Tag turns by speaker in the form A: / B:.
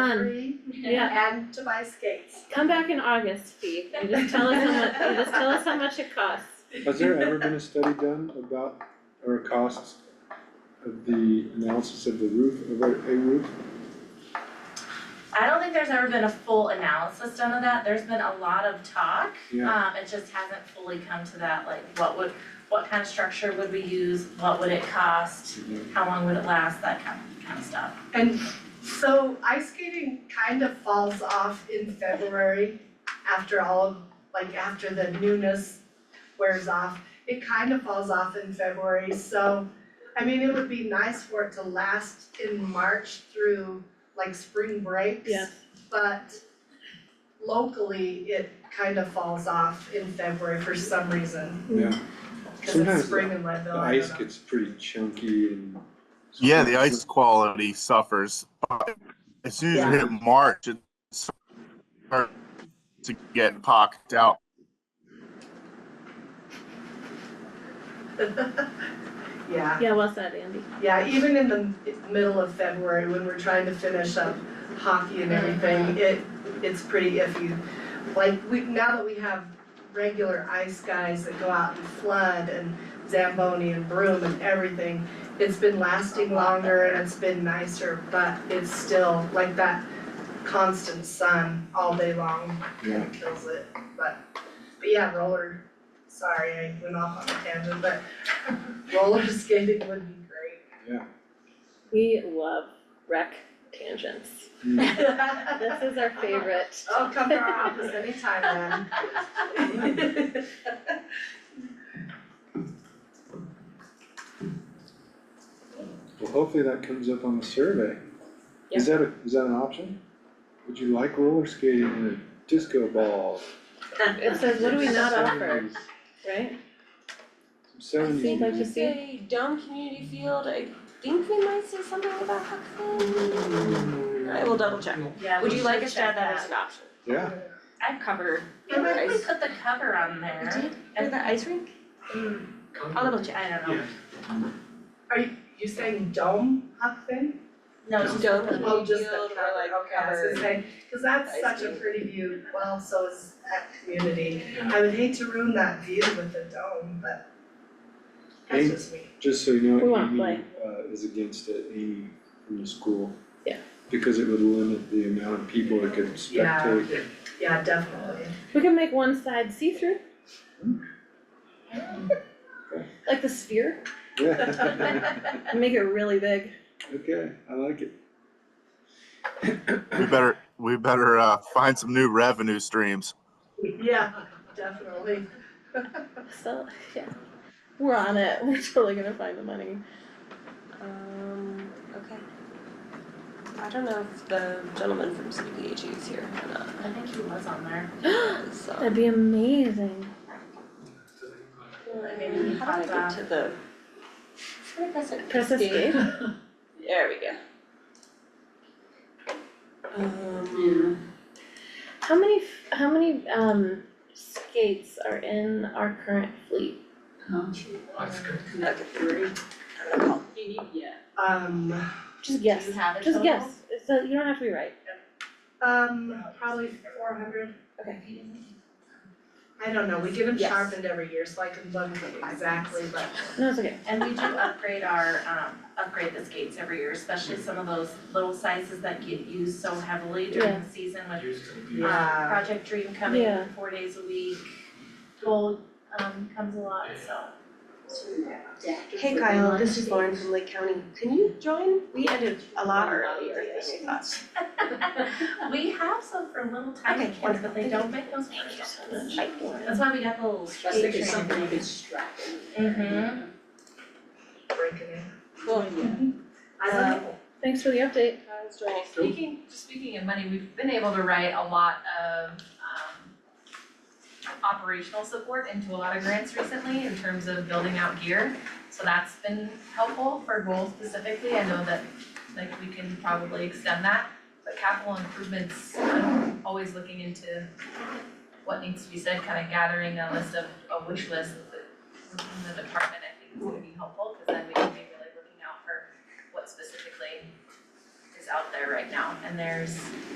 A: recovery
B: Yeah.
A: and to my skates.
B: Come back in August, Fee, and just tell us how much, and just tell us how much it costs.
C: Has there ever been a study done about, or costs of the analysis of the roof, of a, a roof?
D: I don't think there's ever been a full analysis done of that, there's been a lot of talk.
C: Yeah,
D: Um, it just hasn't fully come to that, like what would, what kind of structure would we use, what would it cost, how long would it last, that kind of, kind of stuff.
A: And so ice skating kind of falls off in February after all of, like after the newness wears off. It kind of falls off in February, so I mean, it would be nice for it to last in March through like spring breaks.
B: Yeah.
A: But locally, it kind of falls off in February for some reason,
C: yeah,
A: cause
C: Sometimes
A: it's spring in Leadville,
C: the
A: I don't
C: ice
A: know.
C: gets pretty chunky and.
E: Yeah, the ice quality suffers. But As soon as you hit March, it starts to get pocked out.
A: Yeah.
B: Yeah, well said, Andy.
A: Yeah, even in the middle of February, when we're trying to finish up hockey and everything, it, it's pretty iffy. Like, we, now that we have regular ice guys that go out and flood and Zamboni and broom and everything, it's been lasting longer and it's been nicer, but it's still like that constant sun all day long
C: Yeah,
A: kinda kills it, but, but yeah, roller, sorry, I went off on a tangent, but roller skating would be great.
C: yeah.
B: We love rec tangents. This is our favorite.
A: Oh, come to our office anytime then.
C: Well, hopefully that comes up on the survey. Is that a, is that an option? Would you like roller skating and a disco ball?
B: It says, what do we not offer,
C: 70s,
B: right?
C: Some seventies
B: Seems like you
C: music.
B: see,
F: say dome community field, I think we might say something about Huckabee. I will double check.
D: Yeah,
F: Would you like us to add that as
D: as
F: an option?
C: Yeah,
F: I'd cover.
D: I like we
F: Ice.
D: put the cover on there.
F: Or the ice rink?
D: Mm,
F: I'll double check.
D: I don't know,
A: Are you, you saying dome huck thing?
D: no, just
F: Dome
D: the-
A: Oh,
F: community
A: just the
F: field
A: cover,
F: or like
A: okay, I was
F: cover.
A: gonna say, cause that's
F: Ice
A: such a
F: cream.
A: pretty view, well, so is that community. I would hate to ruin that view with a dome, but that's
C: Hey.
A: just me.
C: just so you
B: We
C: know,
B: wanna
C: Amy
B: play.
C: uh is against it, Amy from the school.
B: Yeah.
C: Because it would limit the amount of people that could
A: Yeah.
C: spectate.
A: Yeah, definitely.
B: we can make one side see-through.
F: Mm.
B: Like the sphere, make it really big.
C: Okay, I like it.
E: We better we better uh, find some new revenue streams.
A: Yeah, definitely.
B: So, yeah, we're on it, we're totally gonna find the money.
F: Um, okay. I don't know if the gentleman from CDBG E is here or not, um,
D: I think he was on there.
F: so.
B: That'd be amazing.
D: maybe he
F: How do I
D: popped
F: get
D: off.
F: to the? Should I press it?
B: Press escape.
F: There we go. Um,
B: How many, f- how many, um, skates are in our current fleet?
F: okay. I'm gonna call.
A: Um,
B: Just
D: Do you
B: guess,
D: have a
B: just
D: total?
B: guess, so you don't have to be right.
A: um, probably four hundred. I don't know, we get them
F: Yes.
A: sharpened every year, so I can look exactly, but
B: No, it's okay,
D: And we do upgrade our, um, upgrade the skates every year, especially some of those little sizes that get used so heavily during the season with um,
A: Yeah.
D: Project Dream coming
B: Yeah.
D: four days a week. Gold, um, comes a lot, so.
F: Hey Kyle, this is Lauren from Lake County. Can you join? We ended a lot earlier than I thought.
D: We have some for little tiny
F: Okay,
D: kids, but they don't make those for adults. That's why we got the little skate train thing. Mhm.
A: uh, breaking it.
F: Cool.
A: I don't
F: Uh,
A: know.
B: thanks for the update.
F: Kyle's joining.
G: Speaking, speaking of money, we've been able to write a lot of um operational support into a lot of grants recently in terms of building out gear. So that's been helpful for goals specifically. I know that like we can probably extend that, but capital improvements, I'm always looking into what needs to be said, kind of gathering a list of a wish list that within the department, I think is gonna be helpful, cause then we can be really looking out for what specifically is out there.
D: there right now, and there's